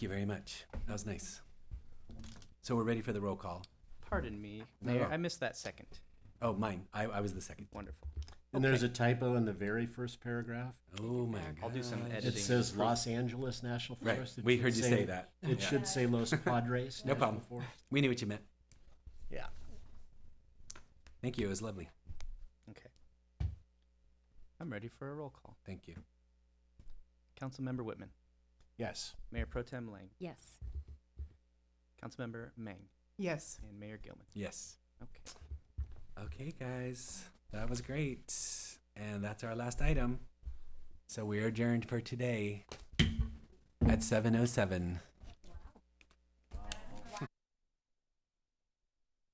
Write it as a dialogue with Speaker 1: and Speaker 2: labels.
Speaker 1: you very much. That was nice. So we're ready for the roll call.
Speaker 2: Pardon me,
Speaker 1: No,
Speaker 2: Mayor.
Speaker 1: no.
Speaker 2: I missed that second.
Speaker 1: Oh, mine. I, I was the second.
Speaker 2: Wonderful.
Speaker 3: And there's a typo in the very first paragraph.
Speaker 1: Oh my
Speaker 2: I'll do some
Speaker 1: gosh.
Speaker 3: It
Speaker 2: editing.
Speaker 3: says Los Angeles National
Speaker 1: Right.
Speaker 3: Forest. It
Speaker 1: We
Speaker 3: should
Speaker 1: heard you say that.
Speaker 3: It
Speaker 1: Yeah.
Speaker 3: should say Los Padres.
Speaker 1: No
Speaker 3: National
Speaker 1: problem.
Speaker 3: Forest.
Speaker 1: We knew what you meant.
Speaker 3: Yeah.
Speaker 1: Thank you. It was lovely.
Speaker 2: Okay. I'm ready for a roll call.
Speaker 1: Thank you.
Speaker 2: Councilmember Whitman,
Speaker 3: Yes.
Speaker 2: Mayor Pro Tem Lang,
Speaker 4: Yes.
Speaker 2: Councilmember Mang,
Speaker 5: Yes.
Speaker 2: and Mayor Gilman.
Speaker 1: Yes.
Speaker 2: Okay.
Speaker 1: Okay, guys. That was great. And that's our last oh item. So we are adjourned for today at 7.07.